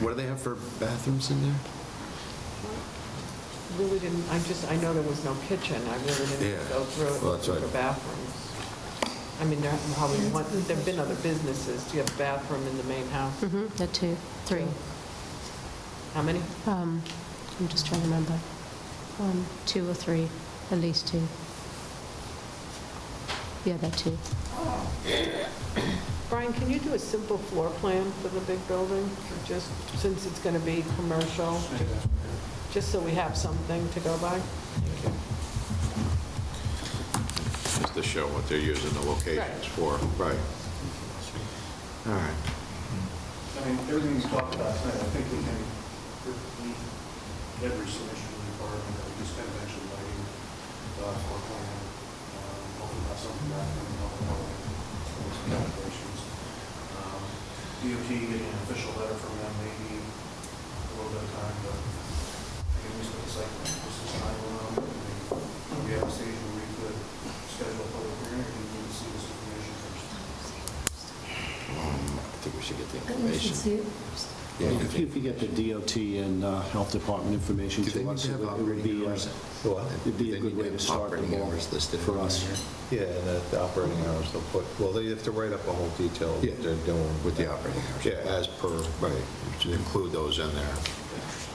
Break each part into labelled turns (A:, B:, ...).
A: What do they have for bathrooms in there?
B: Really didn't, I just, I know there was no kitchen, I really didn't
A: Yeah.
B: go through it
A: Well, that's
B: looking for
A: right.
B: bathrooms. I mean, there probably, one- there've been other businesses, do you have a bathroom in the main house?
C: Mhm, The two, three.
B: How many?
C: Um, I'm just trying to remember. One, two or three, at least two. Yeah, that two.
B: Brian, can you do a simple floor plan for the big building, just since it's going to be commercial, just so we have something to go by?
D: Just to show what they're using the locations for.
A: Right. All right.
E: I mean, everything he's talked about tonight, I think we can, we, every submission requirement that we just kind of mentioned, lighting, uh, floor plan, um, hopefully not something that can help out with some calculations. Um, DOT getting an official letter from them, maybe a little bit of time, but I can just put a site, just a time around, and maybe we have a stage where we could schedule a public hearing, and we can see this information first.
A: Um, I think we should get the
F: We should see
A: information.
F: it.
A: Yeah, I
G: If you
A: think-
G: could get the DOT and uh, Health Department information
A: Do they
G: to
A: need
G: us,
A: to
G: it
A: have
G: would- it would be,
A: operating
G: uh,
A: hours?
G: it'd be a
A: They
G: good
A: need to
G: way to
A: have
G: start the
A: operating
G: ball
A: hours listed
G: for
A: in
G: us.
A: here.
H: Yeah, and the- the operating hours they'll put, well, they have to write up a whole detail of
A: Yeah.
H: what they're doing.
A: With the operating hours.
H: Yeah, as per, right, to include those in there,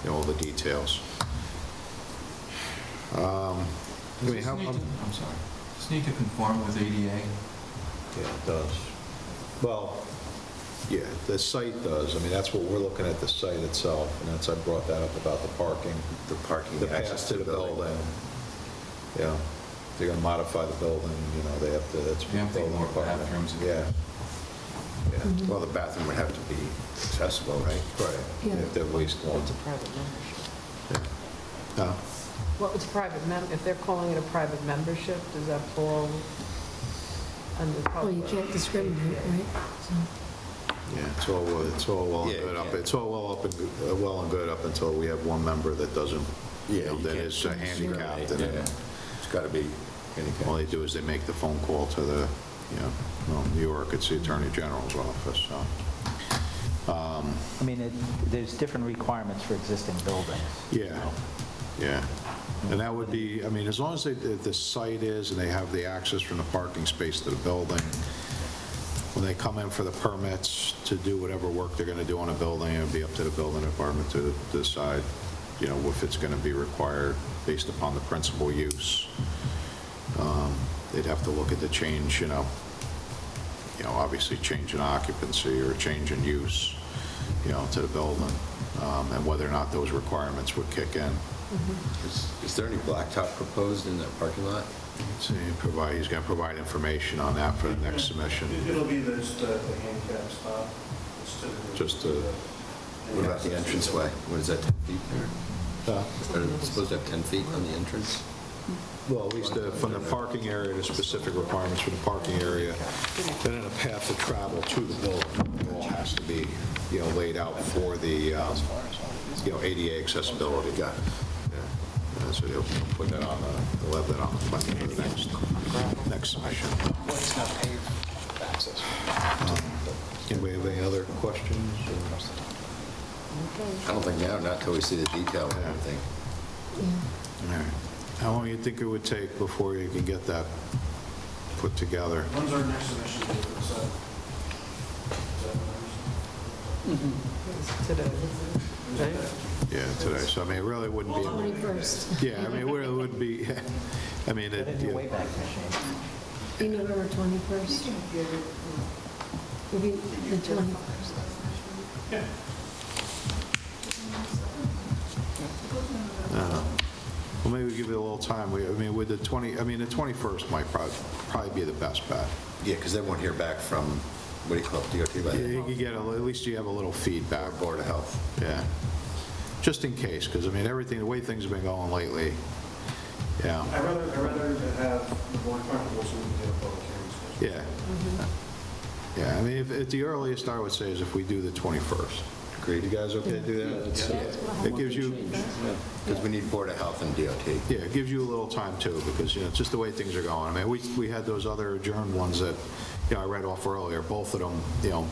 H: you know, all the details. Um, I mean, how, um, I'm sorry.
I: Just need to conform with ADA.
H: Yeah, it does. Well, yeah, the site does. I mean, that's what we're looking at, the site itself, and that's, I brought that up about the parking,
A: The parking
H: the
A: access
H: path to the building. Yeah, they're gonna modify the building, you know, they have to, that's.
I: They have to
H: building
I: more
H: department.
I: bathrooms.
H: Yeah. Yeah.
A: Well, the bathroom would have to be accessible, right?
H: Right,
F: Yeah.
H: if they're least one.
B: It's a private membership.
H: No,
B: Well, it's a private mem, if they're calling it a private membership, does that fall under
F: Well, you
B: public?
F: can't discriminate, right? So,
H: yeah, it's all, well- it's all well and
A: Yeah,
H: good up,
A: yeah.
H: it's all well up and, good- uh, well and good up until we have one member that doesn't, you
A: Yeah,
H: know,
A: you
H: that
A: can't
H: is uh, handicapped. and
A: Yeah. It's got to be handicapped.
H: All they do is they make the phone call to the, you know, well, New York, it's the Attorney General's office, so. um,
J: I mean, it- there's different requirements for existing buildings.
H: Yeah, yeah. And that would be, I mean, as long as they, the the site is and they have the access from the parking space to the building, when they come in for the permits to do whatever work they're going to do on a building, it would be up to the building department to decide, you know, if it's going to be required based upon the principal use. Um, They'd have to look at the change, you know, you know, obviously change in occupancy or change in use, you know, to the building, um, and whether or not those requirements would kick in.
A: Is- Is there any blacktop proposed in that parking lot?
H: So he provide, he's gonna provide information on that for the next submission.
E: It- It'll be the, just the the handicap spot. It's to the-
H: Just the-
A: What about the entranceway? What is that, 10 feet there?
H: Uh,
A: Are they supposed to have 10 feet on the entrance?
H: Well, at least the- from the parking area, the specific requirements for the parking area, and then a path of travel to the building, all has to be, you know, laid out for the, um, you know, ADA accessibility. Got So they'll put that on, the- they'll have that on the plan for the next, next submission.
J: What's not paved access?
H: Um, Anybody have any other questions?
A: I don't think now, not till we see the detail and everything.
F: yeah.
H: All right. How long do you think it would take before you can get that put together?
E: When's our next submission date for the site? Is that when
B: It's Today, right?
H: Yeah, today, so I mean, it really wouldn't be,
F: 21st,
H: yeah, I mean, it really would be, I mean, it-
J: Put in your Wayback Machine.
F: be November 21st. It'll be the 21st.
H: well, maybe we give it a little time, We- I mean, with the 20, I mean, the 21st might probably, probably be the best bet.
A: Yeah, because they won't hear back from, what do you call it, DOT, by
H: Yeah,
A: then.
H: You could get, a- at least you have a little feedback. Board of Health. Yeah, just in case, because I mean, everything, the way things have been going lately, yeah.
E: I'd rather, I'd rather to have the board comfortable so we can get a public hearing scheduled.
H: Yeah. Yeah, I mean, if, at the earliest, I would say is if we do the 21st. Agreed, you guys okay to do that? Yeah. It gives you,
A: Because we need Board of Health and DOT.
H: yeah, it gives you a little time too, because, you know, it's just the way things are going. I mean, we, we had those other adjourned ones that, you know, I read off earlier, both of them, you know,